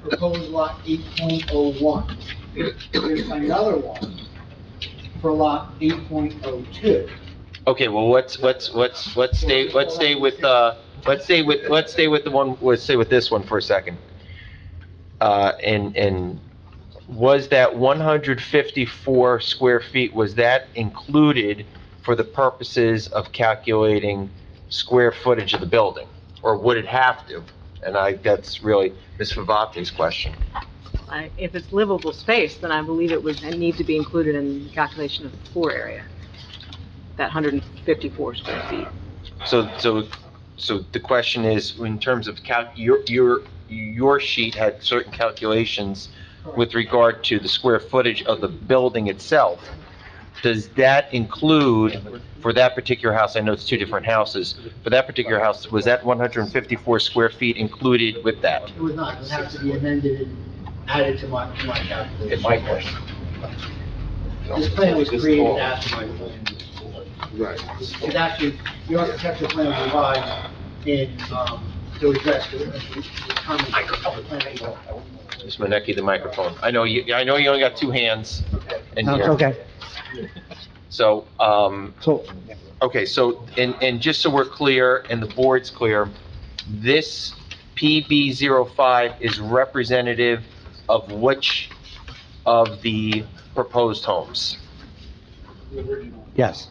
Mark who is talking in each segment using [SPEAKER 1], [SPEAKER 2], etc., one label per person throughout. [SPEAKER 1] proposed lot eight point oh one. There's another one for lot eight point oh two.
[SPEAKER 2] Okay, well, let's, let's, let's, let's stay, let's stay with, uh, let's stay with, let's stay with the one, let's stay with this one for a second. Uh, and, and was that one hundred fifty-four square feet, was that included for the purposes of calculating square footage of the building? Or would it have to? And I, that's really Ms. Favate's question.
[SPEAKER 3] I- If it's livable space, then I believe it would need to be included in the calculation of the floor area, that 154 square feet.
[SPEAKER 2] So, so, so the question is, in terms of calc, your, your, your sheet had certain calculations with regard to the square footage of the building itself. Does that include, for that particular house, I know it's two different houses, for that particular house, was that one hundred and fifty-four square feet included with that?
[SPEAKER 1] It was not, it would have to be amended and added to my, to my calculation. This plan was created after my plan.
[SPEAKER 4] Right.
[SPEAKER 1] It's actually, the architectural plan was revised in, um, to address the, the common, the planning law.
[SPEAKER 2] Ms. Minneke, the microphone. I know you, I know you only got two hands
[SPEAKER 1] Okay.
[SPEAKER 2] in
[SPEAKER 5] No,
[SPEAKER 2] here.
[SPEAKER 5] it's okay.
[SPEAKER 2] So, um,
[SPEAKER 5] So,
[SPEAKER 2] Okay, so, and, and just so we're clear, and the board's clear, this PB 05 is representative of which of the proposed homes?
[SPEAKER 5] yes.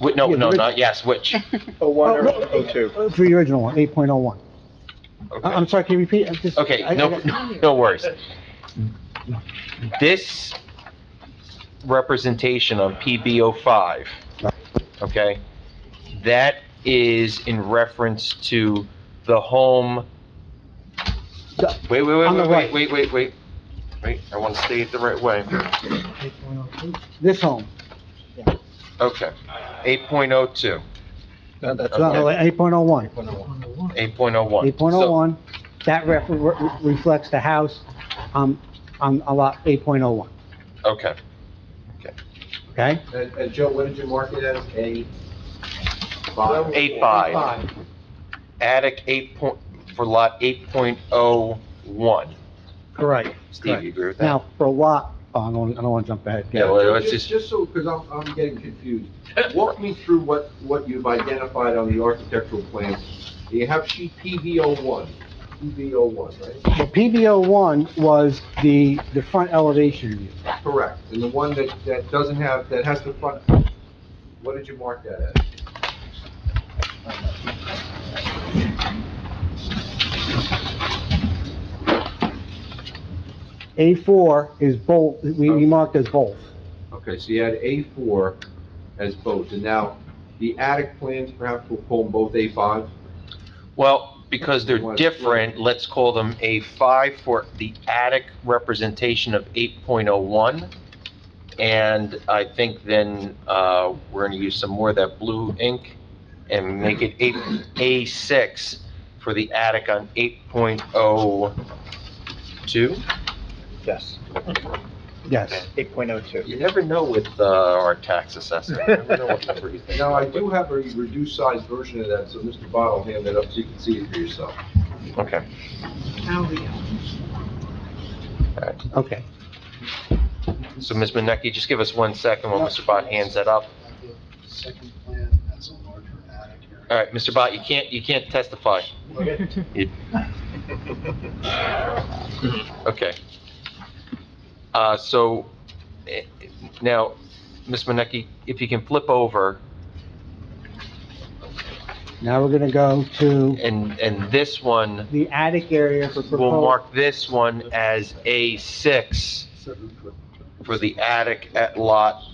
[SPEAKER 2] Wh- No,
[SPEAKER 5] Yeah,
[SPEAKER 2] no,
[SPEAKER 5] the
[SPEAKER 2] not, yes, which?
[SPEAKER 4] Oh, one
[SPEAKER 5] Oh,
[SPEAKER 4] oh two.
[SPEAKER 5] Uh, For the original one, 8.01. I-
[SPEAKER 2] Okay.
[SPEAKER 5] I'm sorry, can you repeat? uh, I'm just- I-
[SPEAKER 2] Okay,
[SPEAKER 5] I
[SPEAKER 2] no,
[SPEAKER 5] got-
[SPEAKER 2] no worries. This representation on PB 05, okay, that is in reference to the home,
[SPEAKER 5] The-
[SPEAKER 2] wait, wait,
[SPEAKER 5] On the
[SPEAKER 2] wait, wait,
[SPEAKER 5] right.
[SPEAKER 2] wait, wait, wait, wait, I want to stay it the right way.
[SPEAKER 1] oh
[SPEAKER 5] This home,
[SPEAKER 2] Okay, 8.02,
[SPEAKER 5] So, uh, no, 8.01,
[SPEAKER 2] 8.01.
[SPEAKER 5] 8.01, that ref- re- reflects the house um, on a lot 8.01,
[SPEAKER 2] So- Okay,
[SPEAKER 5] okay?
[SPEAKER 4] And, and Joe, what did you mark it as? A five?
[SPEAKER 2] 8.5, attic 8 point, for lot 8.01.
[SPEAKER 5] Correct.
[SPEAKER 2] Steve, you agree with that?
[SPEAKER 5] Now, for a lot, oh, I don't, I don't want to jump ahead.
[SPEAKER 2] Yeah, well, let's just,
[SPEAKER 4] Just, just so, because I'm, I'm getting confused. Walk me through what, what you've identified on the architectural plan. You have sheet PV oh one, PV oh one, right?
[SPEAKER 5] The PBO one was the, the front elevation view.
[SPEAKER 4] Correct. And the one that, that doesn't have, that has the front, what did you mark that as?
[SPEAKER 5] A4 is both, we we marked as both.
[SPEAKER 4] Okay, so you had A4 as both, and now the attic plans perhaps will pull them both A5?
[SPEAKER 2] well, because they're
[SPEAKER 4] What-
[SPEAKER 2] different, let's call them A5 for the attic representation of 8.01. And I think then, uh, we're gonna use some more of that blue ink and make it 8, A6 for the attic on 8.02.
[SPEAKER 6] Yes,
[SPEAKER 5] Yes.
[SPEAKER 6] 8.02.
[SPEAKER 2] You never know with, uh, our tax assessor. You never know what number he's gonna
[SPEAKER 4] Now, I do have a reduced size version of that, so Mr. Bott will hand that up so you can see it for yourself.
[SPEAKER 2] Okay.
[SPEAKER 3] Now we go.
[SPEAKER 5] Okay.
[SPEAKER 2] So Ms. Minneke, just give us one second while Mr. Bott hands that up.
[SPEAKER 1] Second plan has a larger attic area.
[SPEAKER 2] All right, Mr. Bott, you can't, you can't testify. You- Okay. Uh, so, eh, now, Ms. Minneke, if you can flip over,
[SPEAKER 5] Now we're gonna go to
[SPEAKER 2] and, and this one,
[SPEAKER 5] the attic area for
[SPEAKER 2] we'll
[SPEAKER 5] proposed.
[SPEAKER 2] mark this one as A6 for the attic at lot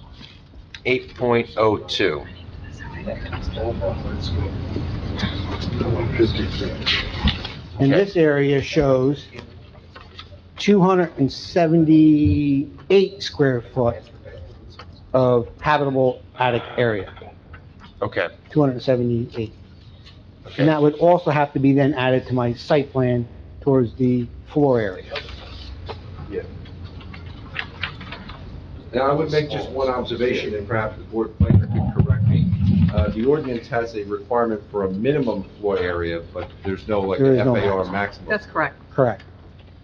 [SPEAKER 2] 8.02.
[SPEAKER 5] And this area shows 278 square foot of habitable attic area,
[SPEAKER 2] Okay,
[SPEAKER 5] 278.
[SPEAKER 2] okay.
[SPEAKER 5] And that would also have to be then added to my site plan towards the floor area.
[SPEAKER 4] Now, I would make just one observation, and perhaps the board planner can correct me. Uh, The ordinance has a requirement for a minimum floor area, but there's no like
[SPEAKER 5] There is no
[SPEAKER 4] FAR maximum.
[SPEAKER 3] That's correct.
[SPEAKER 5] Correct.